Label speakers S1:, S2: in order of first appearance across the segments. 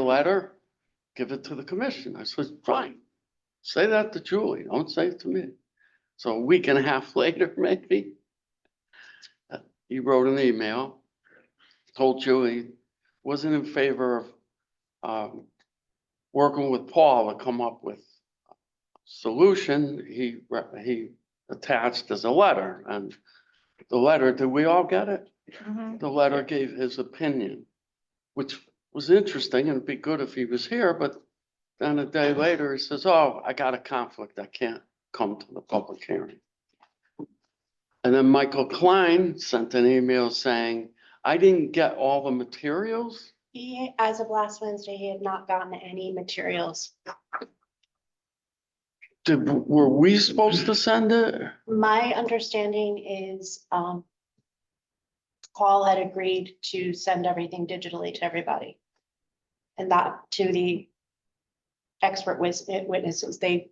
S1: the letter, give it to the commission. I said, fine. Say that to Julie. Don't say it to me. So a week and a half later, maybe, uh, he wrote an email, told Julie, wasn't in favor of, um, working with Paul to come up with a solution. He, re- he attached as a letter and the letter, did we all get it? The letter gave his opinion, which was interesting and it'd be good if he was here, but then a day later, he says, oh, I got a conflict. I can't come to the public hearing. And then Michael Klein sent an email saying, I didn't get all the materials.
S2: He, as of last Wednesday, he had not gotten any materials.
S1: Did, were we supposed to send it?
S2: My understanding is, um, Paul had agreed to send everything digitally to everybody. And that to the expert wis- witnesses, they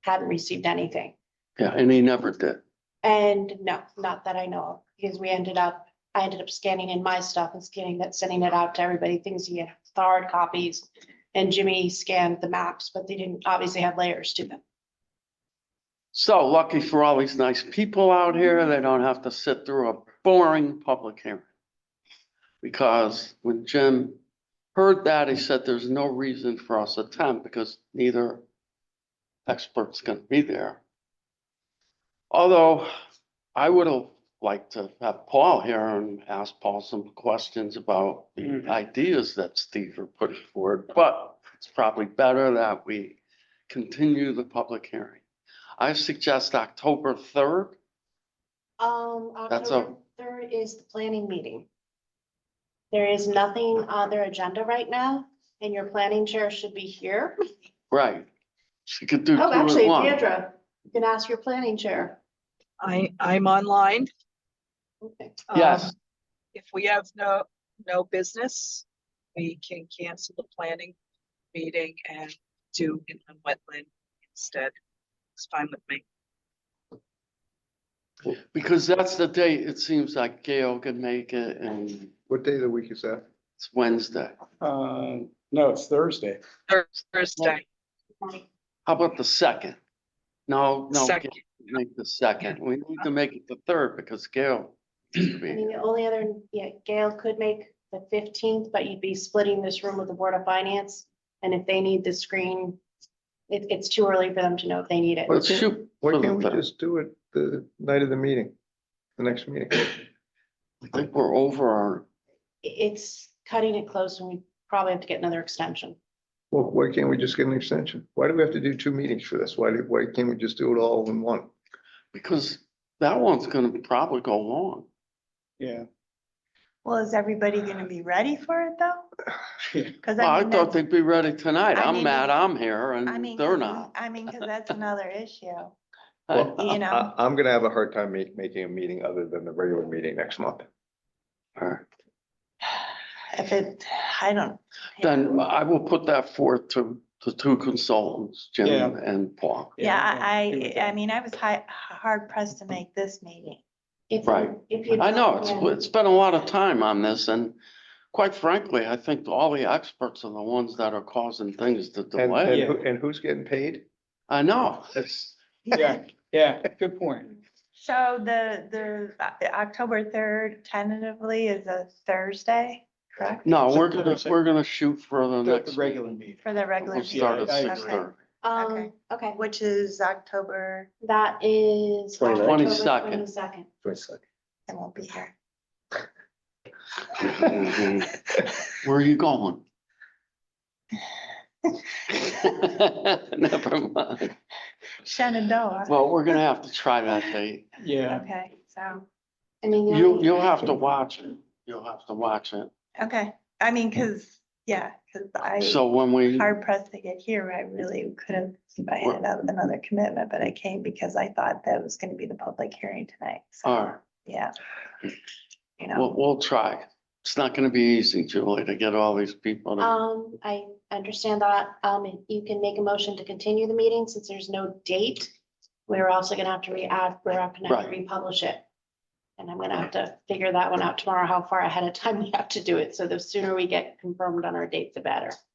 S2: hadn't received anything.
S1: Yeah, and he never did.
S2: And no, not that I know of, because we ended up, I ended up scanning in my stuff and scanning that, sending it out to everybody, things he had hard copies. And Jimmy scanned the maps, but they didn't obviously have layers to them.
S1: So lucky for all these nice people out here, they don't have to sit through a boring public hearing. Because when Jim heard that, he said, there's no reason for us to attend because neither expert's gonna be there. Although I would have liked to have Paul here and ask Paul some questions about the ideas that Steve are putting forward, but it's probably better that we continue the public hearing. I suggest October third.
S2: Um,
S1: That's a-
S2: October third is the planning meeting. There is nothing on their agenda right now, and your planning chair should be here.
S1: Right. She could do two
S2: Oh,
S1: at
S2: actually,
S1: once.
S2: Deidra, you can ask your planning chair.
S3: I, I'm online.
S2: Okay.
S1: Yes.
S3: Um, If we have no, no business, we can cancel the planning meeting and do inland wetland instead. It's fine with me.
S1: Because that's the day it seems like Gail can make it and
S4: What day of the week is that?
S1: it's Wednesday.
S5: Uh, no, it's Thursday.
S3: Thur- Thursday,
S1: How about the second? No, no, Gail
S3: second.
S1: can't make the second. We need to make it the third because Gail. should
S2: I
S1: be
S2: mean,
S1: here.
S2: the only other, yeah, Gail could make the fifteenth, but you'd be splitting this room with the Board of Finance. And if they need the screen, it, it's too early for them to know if they need it.
S1: Let's shoot
S4: Why
S1: for the
S4: can't we
S1: third.
S4: just do it the night of the meeting, the next meeting?
S1: I think we're over our,
S2: It's cutting it close and we probably have to get another extension.
S4: Well, why can't we just get an extension? Why do we have to do two meetings for this? Why, do- why can't we just do it all in one?
S1: because that one's gonna probably go long.
S5: Yeah.
S6: Well, is everybody gonna be ready for it though?
S5: Yeah.
S6: Cause
S1: Well, I
S6: I mean,
S1: thought
S6: that's,
S1: they'd be ready tonight.
S6: I
S1: I'm
S6: mean,
S1: mad I'm here
S6: I mean.
S1: and they're
S6: 'cause-
S1: not.
S6: I mean, cause that's another issue,
S4: Well,
S6: you know?
S4: I, I'm gonna have a hard time ma- making a meeting other than the regular meeting next month.
S6: If it, I don't.
S1: Then I will put that forth to the two consultants, Jim
S5: Yeah.
S1: and Paul.
S6: Yeah,
S5: agree with
S6: I, I, I
S5: that.
S6: mean, I was hi- hard pressed to make this meeting.
S2: If-
S1: Right.
S2: If you.
S1: I know, it's,
S2: Yeah.
S1: it's been a lot of time on this and quite frankly, I think all the experts are the ones that are causing things to
S4: And,
S1: delay.
S4: and who- and who's getting paid?
S1: I know.
S4: That's,
S5: Yeah, yeah, good point.
S6: So the, the uh, October third tentatively is a Thursday, correct?
S1: No, we're
S5: September
S1: gonna,
S5: second.
S1: we're gonna shoot for the
S5: The the
S1: next.
S5: regular meeting.
S6: For the regular.
S1: We'll
S6: meeting,
S1: start at
S5: I
S1: six
S6: okay.
S1: thirty.
S2: Um, okay,
S6: Which is October,
S2: that is.
S1: 22nd.
S2: Twenty-second.
S6: I won't be here.
S1: Where are you going? Never mind.
S6: Shenandoah.
S1: Well, we're gonna have to try that date.
S5: Yeah,
S6: Okay, so,
S2: I mean. the
S1: You,
S2: only-
S1: you'll have to watch it. You'll have to watch it.
S6: okay, I mean, cause, yeah, cause I.
S1: So when we,
S6: hard pressed to get here. I really could have, if I had another- another commitment, but I came because I thought that was gonna be the public hearing tonight. So,
S1: all right,
S6: yeah. You know,
S1: we'll, we'll try. It's not gonna be easy, Julie, to get all these people. to-
S2: Um, I understand that. Um, you can make a motion to continue the meeting since there's no date. We're also gonna have to re-add, we're gonna have to
S1: Right.
S2: republish it. And I'm gonna have to figure that one out tomorrow, how far ahead of time we have to do it. So the sooner we get confirmed on our date, the better.